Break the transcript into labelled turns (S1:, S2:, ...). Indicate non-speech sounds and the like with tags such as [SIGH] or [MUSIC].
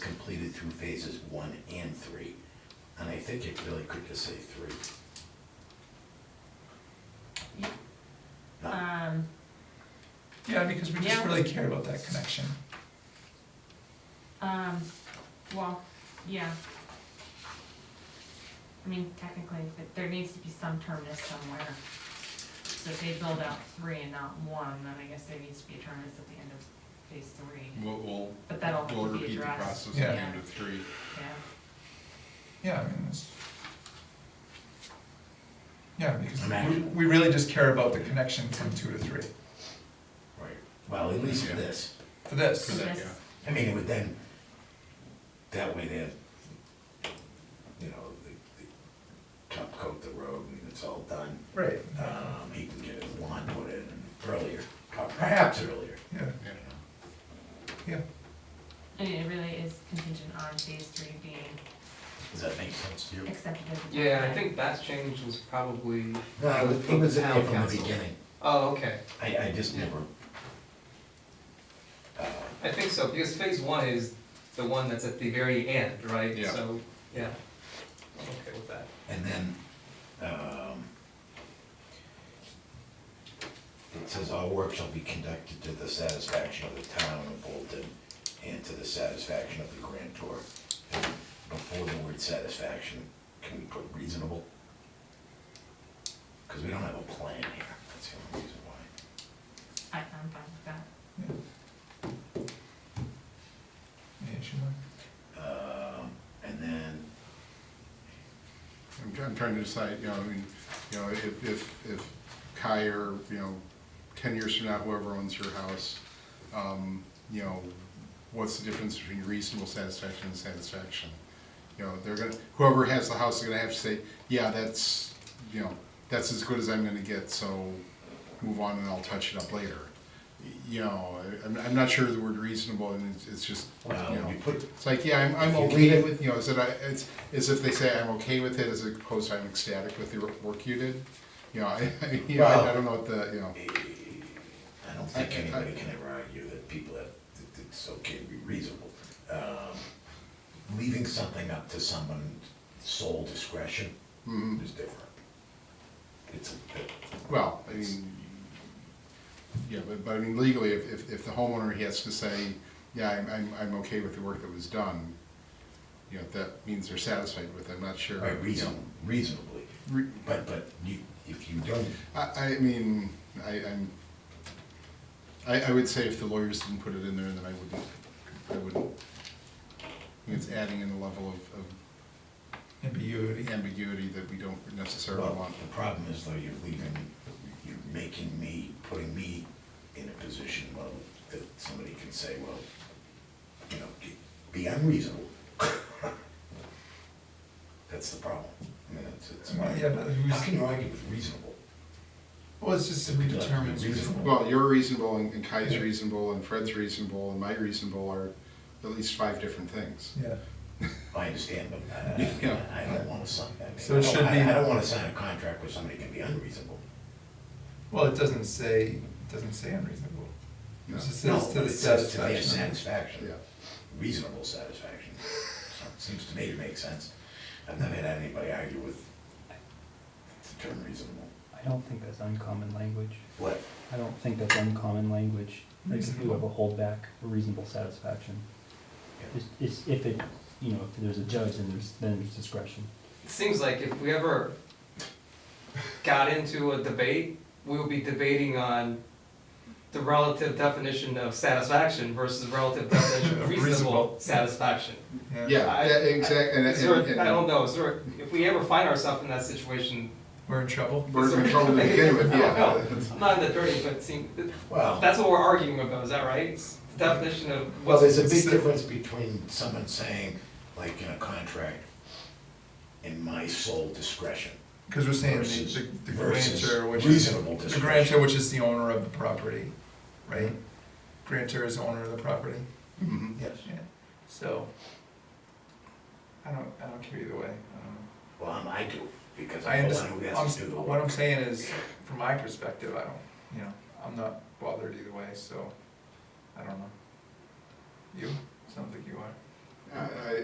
S1: through phases one and three. And I think it really could just say three. Not-
S2: Um,
S3: Yeah, because we just
S2: Yeah.
S3: really care about that connection.
S2: um, well, yeah. I mean, technically, but there needs to be some terminus somewhere. So if they build out three and not one, then I guess there needs to be a terminus at the end of phase three,
S4: We'll, we'll,
S2: But that'll
S4: we'll
S2: be
S4: repeat the
S2: addressed.
S4: process
S3: Yeah.
S4: at the end of three.
S2: yeah.
S3: Yeah, I mean, it's. Yeah, because we,
S1: Imagine.
S3: we really just care about the connection from two to three,
S1: Right, well, at least for this.
S3: for this.
S4: For that,
S2: Yes.
S4: yeah.
S1: I mean, it would then, that way then, you know, the, the top coat the road and it's all done.
S3: Right,
S1: Um, he can get his lawn put in earlier, or perhaps earlier.
S3: yeah,
S4: yeah.
S3: yeah,
S2: I mean, it really is contingent on phase three being
S1: Does that make sense to you?
S2: accepted as a.
S5: Yeah, I
S2: plan.
S5: think that change was probably.
S1: No, it was- it was in
S5: Town
S1: there from the
S5: council.
S1: beginning.
S5: Oh, okay.
S1: I, I just never. uh,
S5: I think so, because phase one is the one that's at the very end, right?
S4: Yeah.
S5: So, yeah. I'm okay with that.
S1: And then, um, it says all work shall be conducted to the satisfaction of the town of Bolton and to the satisfaction of the grantor. And Before the word satisfaction, can we put reasonable? Because we don't have a plan here, that's the only reason why.
S2: I, I'm fine with that.
S3: yeah. Any issue there?
S1: Um, and then,
S4: I'm trying, I'm trying to decide, you know, I mean, you know, if, if, if Kai or, you know, ten years from now, whoever owns your house, um, you know, what's the difference between reasonable satisfaction and satisfaction? You know, they're gonna, whoever has the house is gonna have to say, yeah, that's, you know, that's as good as I'm gonna get, so move on and I'll touch it up later. You know, I- I'm, I'm not sure the word reasonable, and it's, it's just, you
S1: Well,
S4: know.
S1: you put-
S4: It's like, yeah, I'm, I'm
S1: If you read
S4: okay
S1: it-
S4: with, you know, is it, I- it's, as if they say I'm okay with it, as opposed to I'm ecstatic with the work you did. You know, [LAUGHS] I, I- you know, I I don't know what the, you know,
S1: I don't think anybody can ever argue that people have, that it's okay to be reasonable. Um, Leaving something up to someone's sole discretion
S4: Mhm.
S1: is different. It's, a-
S4: well, I mean, yeah, but, but I mean legally, if, if, if the homeowner, he has to say, yeah, I'm, I'm, I'm okay with the work that was done, you know, that means they're satisfied with it, I'm not sure.
S1: right,
S4: you
S1: reason,
S4: know.
S1: reasonably,
S4: Re-
S1: but, but you, if you don't,
S4: I, I mean, I, I'm, I, I would say if the lawyers didn't put it in there, then I wouldn't, I wouldn't. It's adding in a level of,
S3: Ambiguity.
S4: of ambiguity that we don't necessarily
S1: well,
S4: want.
S1: the problem is though, you're leaving, you're making me, putting me in a position, well, that somebody can say, well, you know, be unreasonable. [LAUGHS] That's the problem. I mean, it's, it's my,
S3: Yeah, but who's-
S1: how can you argue with reasonable?
S3: Well, it's just that we determine it's reasonable.
S4: Well, you're reasonable and and Kai's reasonable and Fred's reasonable and my reasonable are at least five different things.
S3: Yeah,
S1: I understand, but I-
S3: [LAUGHS]
S4: Yeah.
S1: I, I don't wanna sign that.
S3: So it
S1: I don't-
S3: should
S1: I-
S3: be-
S1: I don't wanna sign a contract where somebody can be unreasonable.
S3: well, it doesn't say, it doesn't say unreasonable. It
S4: No.
S3: just
S1: No,
S3: says to
S1: but
S3: the
S1: it says to their
S3: satisfaction. of-
S1: satisfaction.
S4: Yeah.
S1: reasonable satisfaction. [LAUGHS] So it Seems to me to make sense. I've never had anybody argue with the term reasonable.
S6: I don't think that's uncommon language.
S1: What?
S6: I don't think that's uncommon language. Like if you have a
S3: Reasonable.
S6: holdback, a reasonable satisfaction. It's, it's if it, you know, if there's a judge and there's, then there's discretion.
S5: It seems like if we ever got into a debate, we would be debating on the relative definition of satisfaction versus
S4: [LAUGHS]
S5: relative definition of reasonable
S3: Reasonable.
S5: satisfaction.
S4: Yeah,
S5: I-
S4: yeah, exact, and,
S5: I
S4: and-
S5: sort of-
S4: and-
S5: I don't know, sort of- if we ever find ourselves in that situation,
S3: We're in trouble.
S4: We're in trouble to begin
S5: [LAUGHS]
S4: with, yeah.
S5: I'm not in the dirty, but seem,
S1: Well,
S5: that's what we're arguing about, is that right? The Definition of
S1: well,
S5: what's
S1: there's a big difference between someone saying, like in a contract, in my sole discretion.
S3: Because we're saying
S1: Versus-
S3: the, the
S1: versus
S3: grantor, which is,
S1: reasonable
S3: the
S1: discretion.
S3: grantor, which is the owner of the property, right? Grantor is the owner of the property.
S4: Mhm.
S3: Yes. Yeah, so, I don't, I don't care either way, I don't know.
S1: Well, I'm- I do, because
S3: I
S1: I'm the one
S3: understand,
S1: who
S3: I'm,
S1: has to do the
S3: what I'm
S1: work.
S3: saying is, from my perspective, I don't, you know, I'm not bothered either way, so, I don't know. You, sounds like you are.